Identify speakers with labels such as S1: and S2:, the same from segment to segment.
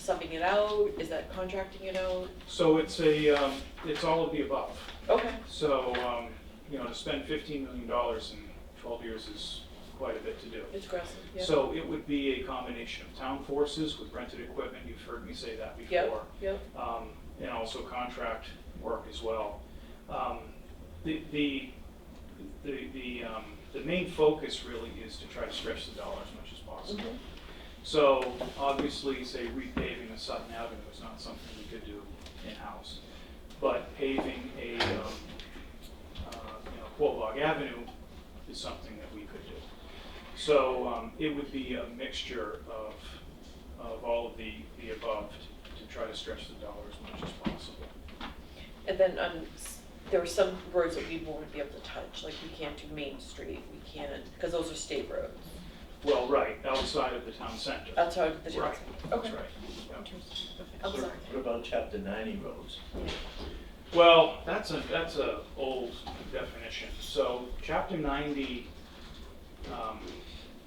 S1: subbing it out? Is that contracting it out?
S2: So it's a, um, it's all of the above.
S1: Okay,
S2: So, um, you know, to spend fifteen million dollars in twelve years is quite a bit to do.
S1: it's aggressive, yeah.
S2: So it would be a combination of town forces with rented equipment, you've heard me say that
S1: Yep.
S2: before.
S1: Yep,
S2: um, and also contract work as well. Um, The, the, the, the, um, the main focus really is to try to stretch the dollar as much as possible.
S1: Mhm.
S2: So obviously, say repaving a Sutton Avenue is not something we could do in-house. But paving a, um, uh, you know, Quabog Avenue is something that we could do. So um, it would be a mixture of, of all of the, the above to to try to stretch the dollar as much as possible.
S1: and then on, s- there were some roads that we won't be able to touch, like we can't do Main Street, we can't, because those are state roads.
S2: Well, right, outside of the town center.
S1: Outside of the town.
S2: Right,
S1: center.
S2: that's
S1: Okay.
S2: right. yeah.
S1: I'll
S3: What
S1: second.
S3: what about chapter ninety roads?
S2: Well, that's a, that's a old definition. So chapter ninety, um,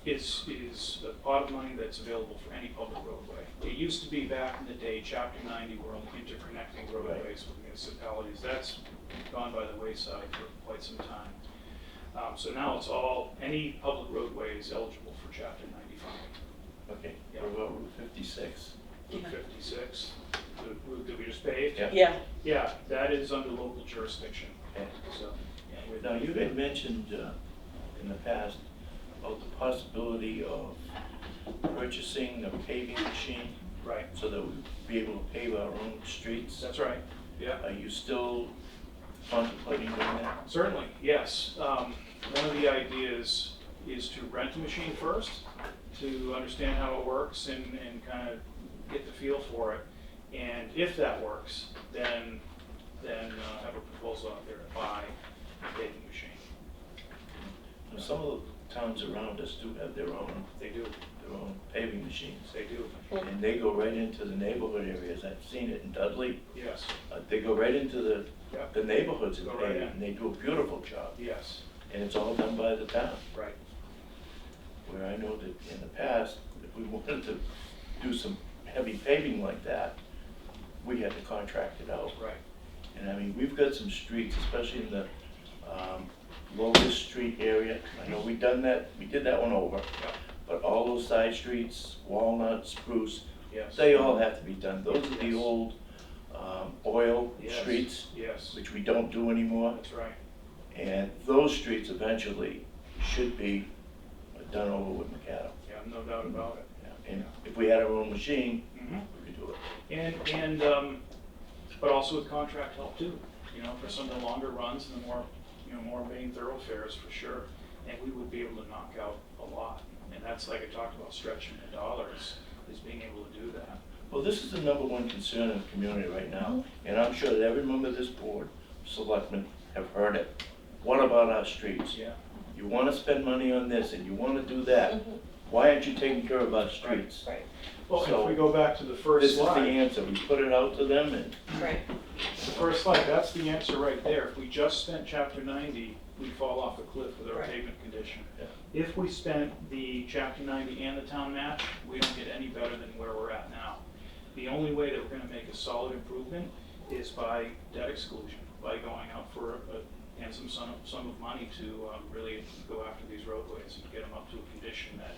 S2: is, is a pot of money that's available for any public roadway. It used to be back in the day, chapter ninety were only interconnecting roadways with municipalities. That's gone by the wayside for quite some time. Um, so now it's all, any public roadway is eligible for chapter ninety-five.
S3: Okay,
S2: Yeah.
S3: what about Route fifty-six?
S2: Route fifty-six, the route that we just paved.
S3: Yeah.
S1: Yeah,
S2: Yeah, that is under local jurisdiction,
S3: Okay.
S2: so. yeah, we're-
S3: Now, you had mentioned uh, in the past about the possibility of purchasing a paving machine
S2: Right,
S3: so that we'd be able to pave our own streets.
S2: that's right, yeah.
S3: Are you still contemplating doing that?
S2: Certainly, yes. Um, One of the ideas is to rent a machine first, to understand how it works and, and kind of get the feel for it. And if that works, then, then uh, have a proposal out there to buy a paving machine.
S3: Now, Some of the towns around us do have their own,
S2: They do,
S3: their own paving machines.
S2: they do,
S3: And they go right into the neighborhood areas. I've seen it in Dudley.
S2: yes,
S3: Uh, They go right into the,
S2: Yeah.
S3: the neighborhoods and
S2: Go right
S3: pave,
S2: in.
S3: and they do a beautiful job.
S2: yes,
S3: And it's all done by the town,
S2: right,
S3: where I know that in the past, if we wanted to do some heavy paving like that, we had to contract it out.
S2: right,
S3: And I mean, we've got some streets, especially in the um, Lotus Street area. I know we done that, we did that one over,
S2: yeah,
S3: but all those side streets, Walnut, Spruce,
S2: yes.
S3: they all have to be done. Those are the
S2: Yes.
S3: old um, oil
S2: Yes,
S3: streets,
S2: Yes,
S3: which we don't do anymore.
S2: that's right,
S3: And those streets eventually should be done over with Macado.
S2: yeah, no doubt about it.
S3: And if we had our own machine,
S2: Mhm.
S3: we could do it.
S2: And, and, um, but also with contract help too, you know, for some of the longer runs and the more, you know, more main thoroughfares for sure. And we would be able to knock out a lot. And that's like I talked about stretching the dollars, is being able to do that.
S3: Well, this is the number one concern in the community right now,
S2: Mm-hmm.
S3: and I'm sure that every member of this board, selectmen, have heard it. What about our streets?
S2: Yeah.
S3: You want to spend money on this and you want to do that.
S2: Mm-hmm.
S3: Why aren't you taking care of our streets?
S1: right,
S2: Well, and if we
S3: So-
S2: go back to the
S3: This
S2: first
S3: is the
S2: slide,
S3: answer. We put it out to them and
S1: right.
S2: the first slide, that's the answer right there. If we just spent chapter ninety, we fall off a cliff with our
S1: Right.
S2: pavement condition.
S3: Yeah.
S2: If we spent the chapter ninety and the town match, we don't get any better than where we're at now. The only way that we're gonna make a solid improvement is by debt exclusion, by going out for a handsome sum of, sum of money to, um, really go after these roadways and get them up to a condition that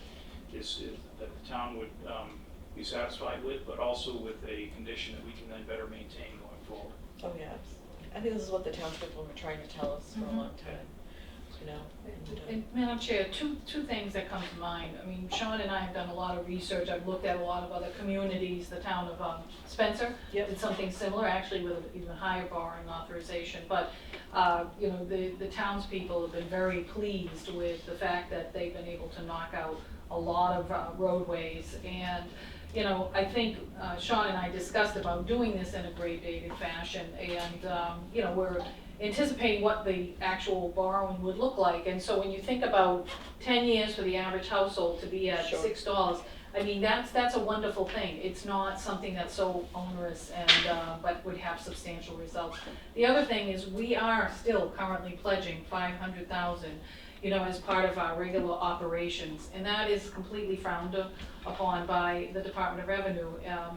S2: is, is- that the town would, um, be satisfied with, but also with a condition that we can then better maintain going forward.
S1: Oh, yeah. I think this is what the townspeople were trying to tell us for a long time, you know? and,
S4: And Madam Chair, two, two things that come to mind. I mean, Sean and I have done a lot of research. I've looked at a lot of other communities, the town of um, Spencer.
S1: Yep.
S4: Did something similar, actually with even higher borrowing authorization. But, uh, you know, the, the townspeople have been very pleased with the fact that they've been able to knock out a lot of uh, roadways. And, you know, I think uh, Sean and I discussed about doing this in a gradated fashion. And, um, you know, we're anticipating what the actual borrowing would look like. And so when you think about ten years for the average household to be at
S1: Sure.
S4: six dollars, I mean, that's, that's a wonderful thing. It's not something that's so onerous and, uh, but would have substantial results. The other thing is, we are still currently pledging five hundred thousand, you know, as part of our regular operations. And that is completely frowned upon by the Department of Revenue. Um,